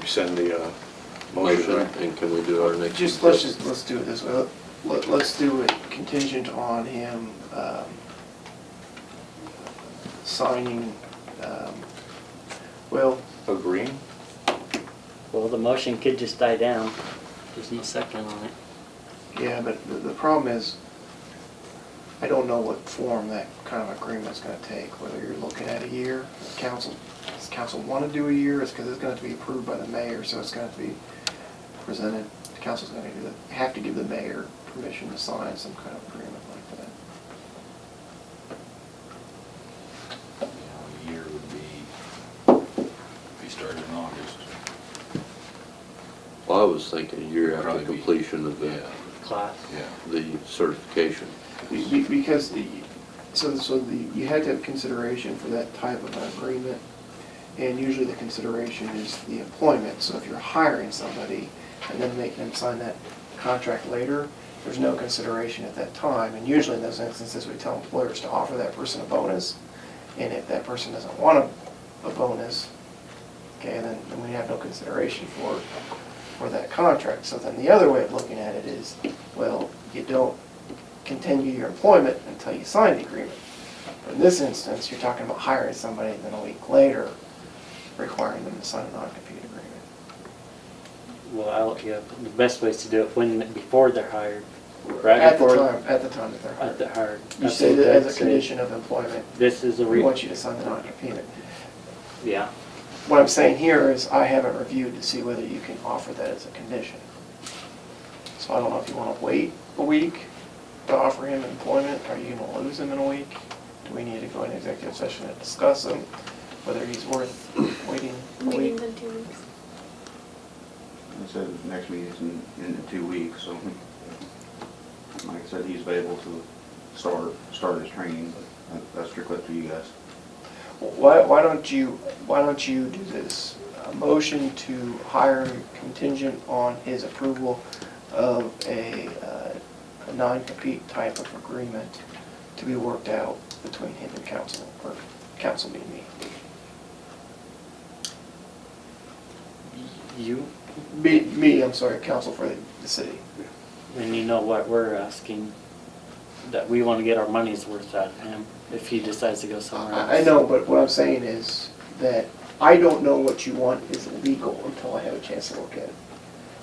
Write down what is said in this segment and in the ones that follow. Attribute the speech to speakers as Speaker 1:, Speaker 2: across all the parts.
Speaker 1: rescind the uh,
Speaker 2: motion,
Speaker 1: motion.
Speaker 2: and can we do our next?
Speaker 3: Just, let's just, let's do it this way. Let, let's do it contingent on him, um, signing, um, well,
Speaker 1: Agreeing?
Speaker 4: Well, the motion could just die down. There's no second on it.
Speaker 3: yeah, but the, the problem is, I don't know what form that kind of agreement's gonna take, whether you're looking at a year, if council, does council wanna do a year, it's cause it's gonna have to be approved by the mayor, so it's gonna have to be presented, the council's gonna do the- have to give the mayor permission to sign some kind of agreement like that.
Speaker 5: A year would be, if you started in August.
Speaker 2: Well, I was thinking a year after
Speaker 5: Probably be-
Speaker 2: completion of the,
Speaker 4: Class.
Speaker 5: Yeah.
Speaker 2: the certification.
Speaker 3: Be- be- Because, the- so, so the, you had to have consideration for that type of an agreement, and usually the consideration is the employment, so if you're hiring somebody and then making them sign that contract later, there's no consideration at that time, and usually in those instances, we tell employers to offer that person a bonus, and if that person doesn't want a, a bonus, okay, then, then we have no consideration for, for that contract. So then the other way of looking at it is, well, you don't continue your employment until you sign the agreement. But in this instance, you're talking about hiring somebody and then a week later requiring them to sign a non-compete agreement.
Speaker 4: Well, I'll, yeah, the best way is to do it when, before they're hired. right
Speaker 3: At the
Speaker 4: before-
Speaker 3: time, at the time that they're
Speaker 4: At the
Speaker 3: hired.
Speaker 4: hired.
Speaker 3: You
Speaker 4: That's
Speaker 3: say
Speaker 4: what
Speaker 3: that as
Speaker 4: I'd
Speaker 3: a
Speaker 4: say.
Speaker 3: condition of employment,
Speaker 4: This is a
Speaker 3: we
Speaker 4: re,
Speaker 3: want you to sign the non-compete.
Speaker 4: yeah.
Speaker 3: What I'm saying here is I haven't reviewed to see whether you can offer that as a condition. So I don't know if you want to wait a week to offer him employment, are you going to lose him in a week? Do we need to go into executive session and discuss him, whether he's worth waiting a week?
Speaker 6: Meetings in two weeks.
Speaker 7: I said, next meeting's in, in the two weeks, so, like I said, he's available to start, start his training, but that- that's strictly up to you guys.
Speaker 3: Why, why don't you, why don't you do this? A motion to hire contingent on his approval of a, uh, a non-compete type of agreement to be worked out between him and council, or council being me.
Speaker 4: You,
Speaker 3: Me, me, I'm sorry, council for the, the city.
Speaker 4: and you know what we're asking, that we want to get our money's worth out of him if he decides to go somewhere else.
Speaker 3: I, I know, but what I'm saying is that I don't know what you want is legal until I have a chance to look at it.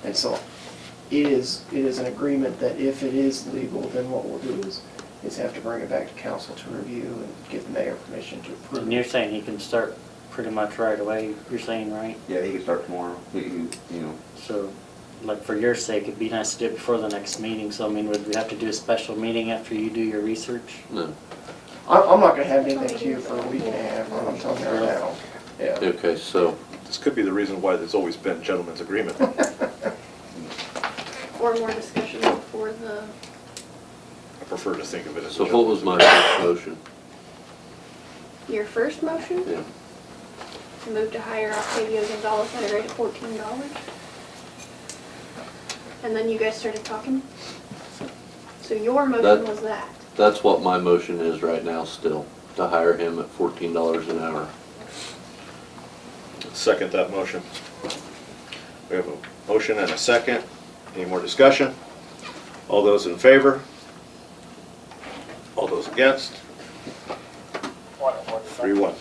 Speaker 3: And so it is, it is an agreement that if it is legal, then what we'll do is, is have to bring it back to council to review and give the mayor permission to approve.
Speaker 4: And you're saying he can start pretty much right away, you're saying, right?
Speaker 7: Yeah, he can start tomorrow, he, can, you know,
Speaker 4: So, like, for your sake, it'd be nice to do it before the next meeting, so I mean, would we have to do a special meeting after you do your research?
Speaker 2: No,
Speaker 3: I'm, I'm not gonna have anything to you for a week and a half, I'm telling you right now. Yeah.
Speaker 2: okay, so,
Speaker 1: This could be the reason why there's always been gentlemen's agreement.
Speaker 6: Or more discussion before the,
Speaker 1: I prefer to think of it as a
Speaker 2: so what was my first motion?
Speaker 6: your first motion?
Speaker 2: Yeah,
Speaker 6: Move to hire Octavio Gonzalez at a rate of fourteen dollars. And then you guys started talking. So your motion
Speaker 2: That-
Speaker 6: was that.
Speaker 2: that's what my motion is right now still, to hire him at fourteen dollars an hour.
Speaker 1: gentleman. Second that motion. We have a motion and a second. Any more discussion? All those in favor? All those against? Three, one.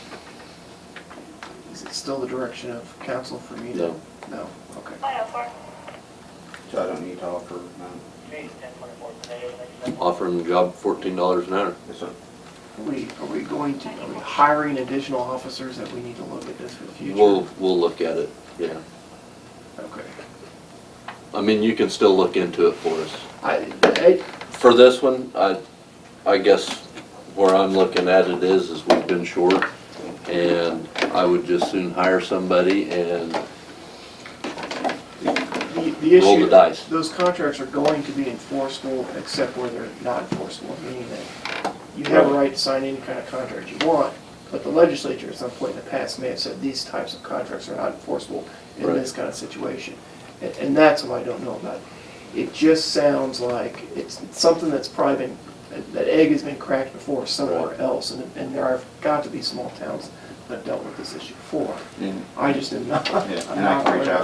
Speaker 3: Is it still the direction of council for me to?
Speaker 2: No.
Speaker 3: No, okay.
Speaker 7: so I don't need to offer, um,
Speaker 2: Offer him the job at fourteen dollars an hour.
Speaker 7: it's a,
Speaker 3: Are we, are we going to, are we hiring additional officers that we need to look at this for the future?
Speaker 2: We'll, we'll look at it, yeah.
Speaker 3: Okay.
Speaker 2: I mean, you can still look into it for us.
Speaker 3: I, I,
Speaker 2: For this one, I, I guess where I'm looking at it is, is we've been short, and I would just soon hire somebody and
Speaker 3: The the
Speaker 2: Roll the
Speaker 3: issue,
Speaker 2: dice.
Speaker 3: those contracts are going to be enforceable except where they're not enforceable, meaning that you have a right to sign any kind of contract you want, but the legislature at some point in the past may have said these types of contracts are not enforceable in
Speaker 2: Right.
Speaker 3: this kind of situation. And, and that's what I don't know about. It just sounds like it's something that's probably been, that- that egg has been cracked before somewhere
Speaker 2: Right.
Speaker 3: else, and, and there have got to be small towns that have dealt with this issue before.
Speaker 7: and
Speaker 3: I just am not,
Speaker 7: Yeah,
Speaker 3: I'm
Speaker 7: and I
Speaker 3: not
Speaker 7: can
Speaker 3: aware
Speaker 7: reach
Speaker 3: of
Speaker 7: out